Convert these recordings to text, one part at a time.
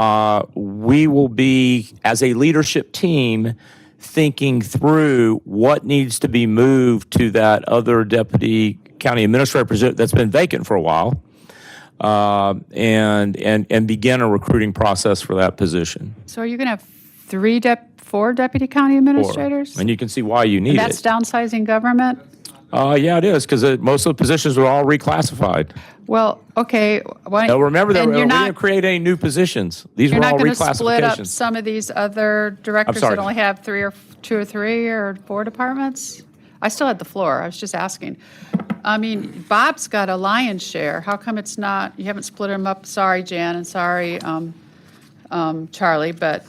uh, we will be, as a leadership team, thinking through what needs to be moved to that other deputy county administrator position that's been vacant for a while, uh, and, and, and begin a recruiting process for that position. So are you going to have three dep, four deputy county Or- administrators? And you can see why you need That's it. downsizing government? Uh, yeah, it is, because most of the positions were all reclassified. Well, okay, why? Now, remember that and we you're we not- didn't create any new positions. These You're were all not going to split up reclassifications. some of these other directors sorry. that only have three or, two or three or four departments? I still had the floor, I was just asking. I mean, Bob's got a lion's share, how come it's not, you haven't split them up? Sorry, Jan, and sorry, um, um, Charlie, but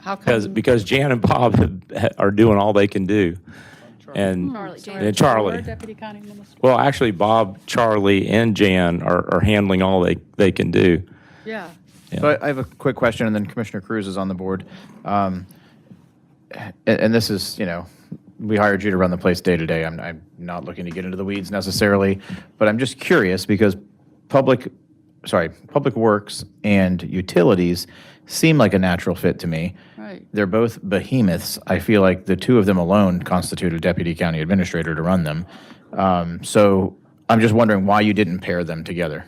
how Because, come? because Jan and Bob have- are doing all they can do. And, and Charlie. Deputy County Minister. Well, actually, Bob, Charlie, and Jan are, are handling all they, they can do. Yeah, So I- I have a quick question, and then Commissioner Cruz is on the board. Um, a- And, this is, you know, we hired you to run the place day to day. I'm, I'm not looking to get into the weeds necessarily, but I'm just curious because public, sorry, Public Works and Utilities seem like a natural fit to me. right. They're both behemoths. I feel like the two of them alone constitute a deputy county administrator to run them. Um, So I'm just wondering why you didn't pair them together.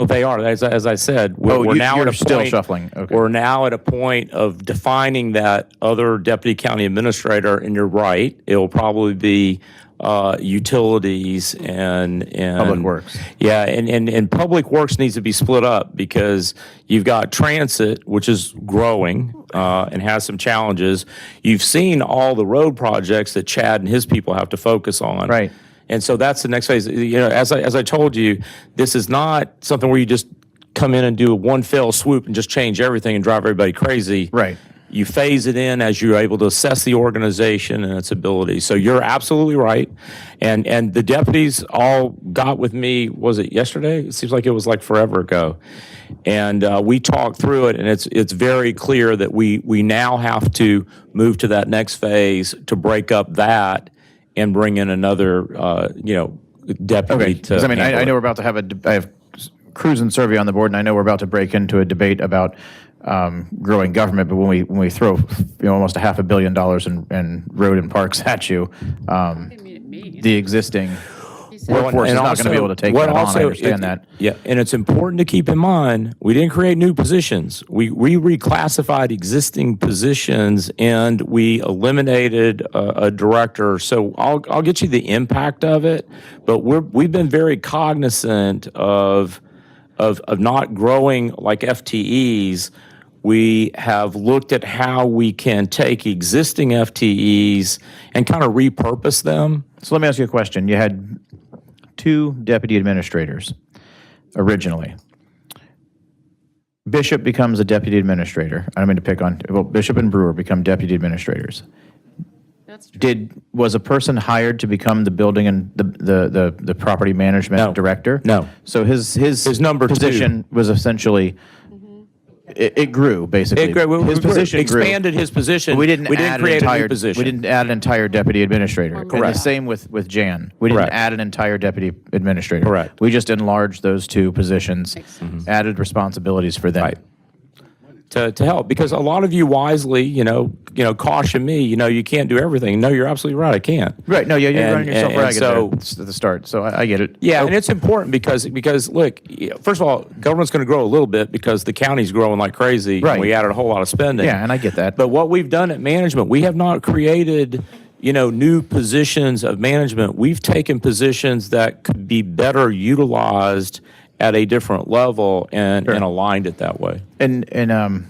Well, they are. As, I- as I said, we're, Oh, we're you- now at you're a still point- shuffling. Okay. We're now at a point of defining that other deputy county administrator, and you're right. It'll probably be uh, utilities and, and Public Works. Yeah, and, and, and public works needs to be split up because you've got transit, which is growing uh, and has some challenges. You've seen all the road projects that Chad and his people have to focus on. Right. And so that's the next phase. You know, as I, as I told you, this is not something where you just come in and do a one fell swoop and just change everything and drive everybody crazy. Right. You phase it in as you're able to assess the organization and its ability. So you're absolutely right. And and the deputies all got with me. Was it yesterday? It seems like it was like forever ago. And uh, we talked through it, and it's it's very clear that we we now have to move to that next phase to break up that and bring in another uh, you know deputy Okay, to. because I mean, handle I, I it. know we're about to have a, de- I have Cruz and Survey on the board, and I know we're about to break into a debate about um, growing government, but when we, when we throw, you know, almost a half a billion dollars in, in road and parks at you, um, Didn't mean it mean. the existing Well, workforce is and not going to be also- able to take what that on, also I is- understand that. Yeah, and it's important to keep in mind, we didn't create new positions. We, we reclassified existing positions and we eliminated a, a director. So I'll, I'll get you the impact of it, but we're, we've been very cognizant of, of, of not growing like FTEs. We have looked at how we can take existing FTEs and kind of repurpose them. So let me ask you a question. You had two deputy administrators originally. Bishop becomes a deputy administrator. I don't mean to pick on, well, Bishop and Brewer become deputy administrators. That's Did, was a person hired to become the building and the, the, the, the property management director? No. So his, his. His number two. Position was essentially, it, it grew, basically. It grew- we- His we grew- position grew. expanded his position. But We didn't add an create a entire, new position. we didn't add an entire deputy administrator. And Correct. the same with, with Jan. We didn't Correct. add an entire deputy administrator. Correct. Mm-hmm. We just enlarged those two positions, added responsibilities for them. Right. to, to help because a lot of you wisely, you know, you know, caution me. You know, you can't do everything. No, you're absolutely right. I can't. Right, no, yeah, you're And- running and- yourself and ragged so- there s- at the start, so I, I get it. Oh, Yeah, and it's important because because look, y- first of all, government's going to grow a little bit because the county's growing like crazy. and Right. we added a whole lot of spending. Yeah, and I get that. But what we've done at management, we have not created, you know, new positions of management. We've taken positions that could be better utilized at a different level and, and aligned it that way. And and um,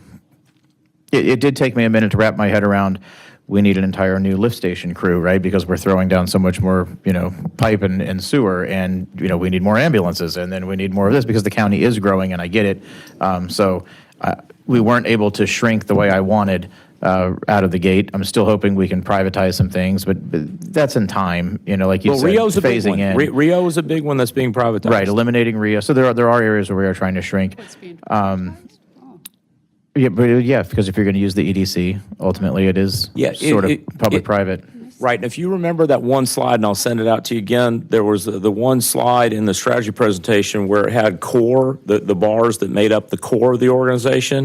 it, it did take me a minute to wrap my head around. We need an entire new lift station crew, right? Because we're throwing down so much more, you know, pipe and, and sewer, and you know, we need more ambulances, and then we need more of this because the county is growing, and I get it. Um, so uh, we weren't able to shrink the way I wanted uh, out of the gate. I'm still hoping we can privatize some things, but, but that's in time, you know, like you Well, said, Rio's a big phasing one. in. Re- Rio is a big one that's being privatized. Right, eliminating Rio. So there are there are areas where we are trying to shrink. being Um, yeah, but uh, yeah, because if you're going to use the EDC, ultimately it is Yeah, it- sort it- of public-private. Right, and if you remember that one slide, and I'll send it out to you again, there was the the one slide in the strategy presentation where it had core, the, the bars that made up the core of the organization.